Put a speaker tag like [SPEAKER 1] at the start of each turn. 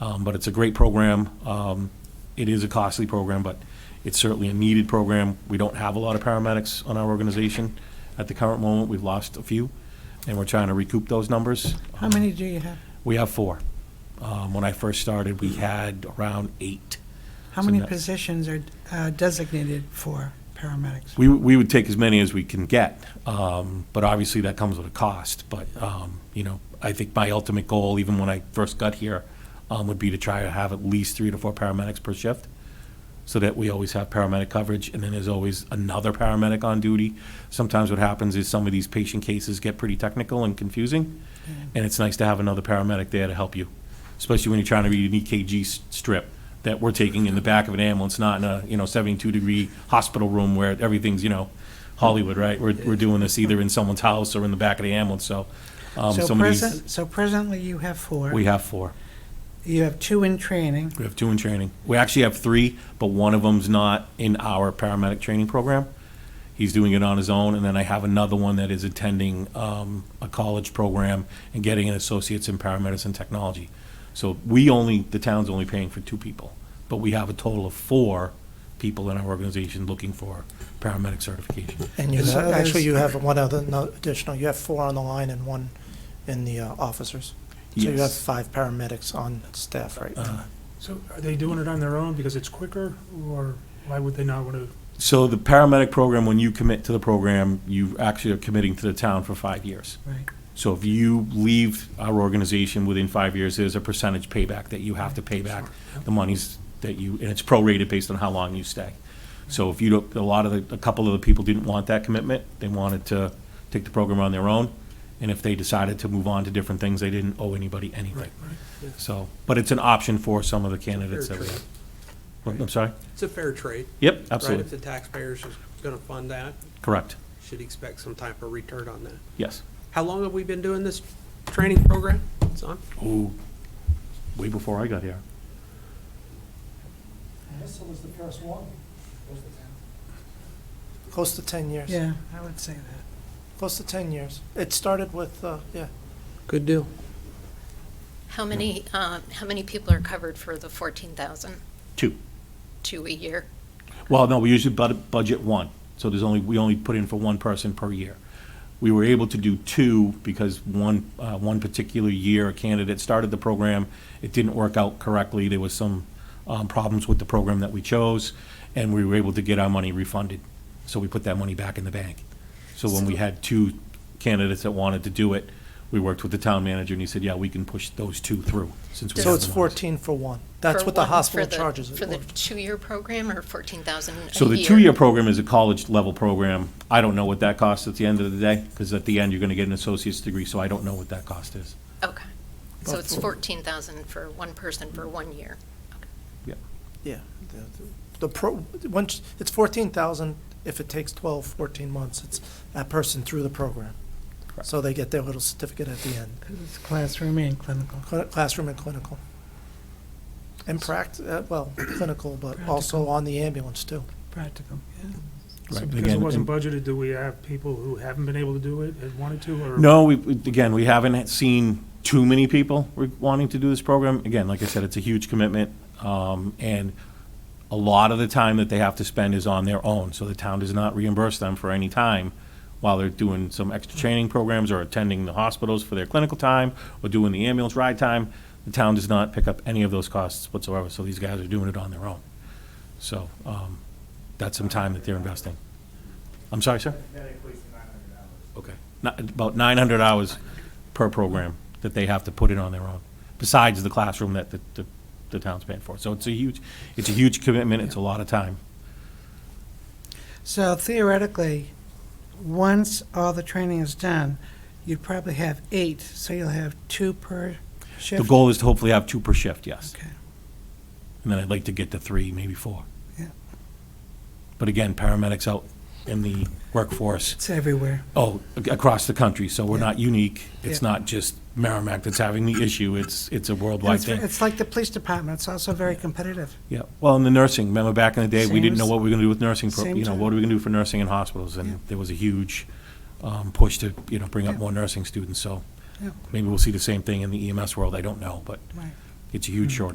[SPEAKER 1] Um, But it's a great program. Um, It is a costly program, but it's certainly a needed program. We don't have a lot of paramedics on our organization at the current moment. We've lost a few, and we're trying to recoup those numbers.
[SPEAKER 2] How many do you have?
[SPEAKER 1] We have four. Um, When I first started, we had around eight.
[SPEAKER 2] How
[SPEAKER 1] So
[SPEAKER 2] many
[SPEAKER 1] no-
[SPEAKER 2] positions are uh, designated for paramedics?
[SPEAKER 1] We, we would take as many as we can get, um, but obviously that comes with a cost. But, um, you know, I think my ultimate goal, even when I first got here, um, would be to try to have at least three to four paramedics per shift, so that we always have paramedic coverage, and then there's always another paramedic on duty. Sometimes what happens is some of these patient cases get pretty technical and confusing,
[SPEAKER 2] Mm-hmm.
[SPEAKER 1] and it's nice to have another paramedic there to help you, especially when you're trying to read an EKG s- strip that we're taking in the back of an ambulance, not in a, you know, 72-degree hospital room where everything's, you know, Hollywood, right? We're, we're doing this either in someone's house or in the back of the ambulance, so. um,
[SPEAKER 2] So
[SPEAKER 1] some of these-
[SPEAKER 2] present, so presently you have four.
[SPEAKER 1] We have four.
[SPEAKER 2] You have two in training.
[SPEAKER 1] We have two in training. We actually have three, but one of them's not in our paramedic training program. He's doing it on his own, and then I have another one that is attending um, a college program and getting an associate's in paramedicine technology. So we only, the town's only paying for two people, but we have a total of four people in our organization looking for paramedic certification.
[SPEAKER 3] And you,
[SPEAKER 2] So
[SPEAKER 3] have-
[SPEAKER 2] there's-
[SPEAKER 3] actually, you have one other, no, additional, you have four on the line and one in the uh, officers. So you have
[SPEAKER 1] Yes.
[SPEAKER 3] five paramedics on staff right now.
[SPEAKER 1] Uh,
[SPEAKER 4] So are they doing it on their own because it's quicker, or why would they not want to?
[SPEAKER 1] So the paramedic program, when you commit to the program, you actually are committing to the town for five years.
[SPEAKER 2] Right.
[SPEAKER 1] So if you leave our organization within five years, there's a percentage payback that you have to pay back the monies that you, and it's prorated based on how long you stay. So if you don't, a lot of the, a couple of the people didn't want that commitment, they wanted to take the program on their own. And if they decided to move on to different things, they didn't owe anybody anything. So, but it's an option for some of the candidates that we have. What- I'm sorry?
[SPEAKER 5] It's a fair trade.
[SPEAKER 1] Yep,
[SPEAKER 5] Right, if
[SPEAKER 1] absolutely,
[SPEAKER 5] the taxpayers is gonna fund that,
[SPEAKER 1] correct,
[SPEAKER 5] should expect some type of return on that.
[SPEAKER 1] yes.
[SPEAKER 5] How long have we been doing this training program? It's on,
[SPEAKER 1] Ooh, way before I got here.
[SPEAKER 3] Close to 10 years.
[SPEAKER 2] Yeah, I would say that.
[SPEAKER 3] Close to 10 years. It started with, uh, yeah,
[SPEAKER 5] good deal.
[SPEAKER 6] How many, um, how many people are covered for the 14,000?
[SPEAKER 1] Two.
[SPEAKER 6] Two a year?
[SPEAKER 1] Well, no, we usually bud- budget one, so there's only, we only put in for one person per year. We were able to do two because one, uh, one particular year, a candidate started the program, it didn't work out correctly, there was some, um, problems with the program that we chose, and we were able to get our money refunded, so we put that money back in the bank. So when we had two candidates that wanted to do it, we worked with the town manager, and he said, yeah, we can push those two through, since we
[SPEAKER 3] so
[SPEAKER 1] have
[SPEAKER 3] it's
[SPEAKER 1] the ones."
[SPEAKER 3] 14 for one. That's
[SPEAKER 6] For
[SPEAKER 3] what the
[SPEAKER 6] one- for
[SPEAKER 3] hospital
[SPEAKER 6] the-
[SPEAKER 3] charges. it
[SPEAKER 6] For the
[SPEAKER 3] for.
[SPEAKER 6] two-year program or 14,000 a year?
[SPEAKER 1] So the two-year program is a college-level program. I don't know what that costs at the end of the day, because at the end, you're going to get an associate's degree, so I don't know what that cost is.
[SPEAKER 6] Okay. So
[SPEAKER 3] Well,
[SPEAKER 6] it's
[SPEAKER 3] for-
[SPEAKER 6] 14,000 for one person for one year?
[SPEAKER 3] Yeah. The- The pro, once, it's 14,000 if it takes 12, 14 months. It's that person through the program.
[SPEAKER 1] Correct.
[SPEAKER 3] So they get their little certificate at the end.
[SPEAKER 2] Because it's classroom and clinical.
[SPEAKER 3] Cl- Classroom and clinical. And pract, uh, well, clinical, but also
[SPEAKER 2] Practical.
[SPEAKER 3] on the ambulance too.
[SPEAKER 2] Practical, yeah.
[SPEAKER 1] Right,
[SPEAKER 4] So
[SPEAKER 1] and
[SPEAKER 4] because it
[SPEAKER 1] again,
[SPEAKER 4] wasn't
[SPEAKER 1] and-
[SPEAKER 4] budgeted, do we have people who haven't been able to do it and wanted to, or?
[SPEAKER 1] No, we, we- again, we haven't seen too many people re- wanting to do this program. Again, like I said, it's a huge commitment, um, and a lot of the time that they have to spend is on their own, so the town does not reimburse them for any time while they're doing some extra training programs or attending the hospitals for their clinical time or doing the ambulance ride time. The town does not pick up any of those costs whatsoever, so these guys are doing it on their own. So, um, that's some time that they're investing. I'm sorry, sir? Okay. Not- About 900 hours per program that they have to put in on their own, besides the classroom that the- the the town's paying for. So it's a huge, it's a huge commitment, it's a lot of time.
[SPEAKER 2] So theoretically, once all the training is done, you'd probably have eight, so you'll have two per shift?
[SPEAKER 1] The goal is to hopefully have two per shift, yes.
[SPEAKER 2] Okay.
[SPEAKER 1] And then I'd like to get to three, maybe four.
[SPEAKER 2] Yeah.
[SPEAKER 1] But again, paramedics out in the workforce,
[SPEAKER 2] It's everywhere.
[SPEAKER 1] oh, ac- across the country, so we're
[SPEAKER 2] Yeah.
[SPEAKER 1] not unique. It's
[SPEAKER 2] Yeah.
[SPEAKER 1] not just Merrimack that's having the issue, it's, it's a
[SPEAKER 2] And
[SPEAKER 1] worldwide
[SPEAKER 2] It's
[SPEAKER 1] thing.
[SPEAKER 2] it's like the police department, it's also very competitive.
[SPEAKER 1] Yeah, well, in the nursing, remember back in the day, we didn't know
[SPEAKER 2] Same as-
[SPEAKER 1] what we were gonna do with nursing, pro-
[SPEAKER 2] same
[SPEAKER 1] you know,
[SPEAKER 2] time.
[SPEAKER 1] what are we gonna do for nursing in hospitals?
[SPEAKER 2] Yeah.
[SPEAKER 1] And there was a huge um, push to, you know, bring up
[SPEAKER 2] Yeah.
[SPEAKER 1] more nursing students, so
[SPEAKER 2] Yeah.
[SPEAKER 1] maybe we'll see the same thing in the EMS E world, I don't know, but
[SPEAKER 2] Right. Mm-hmm.
[SPEAKER 1] it's a huge shortage.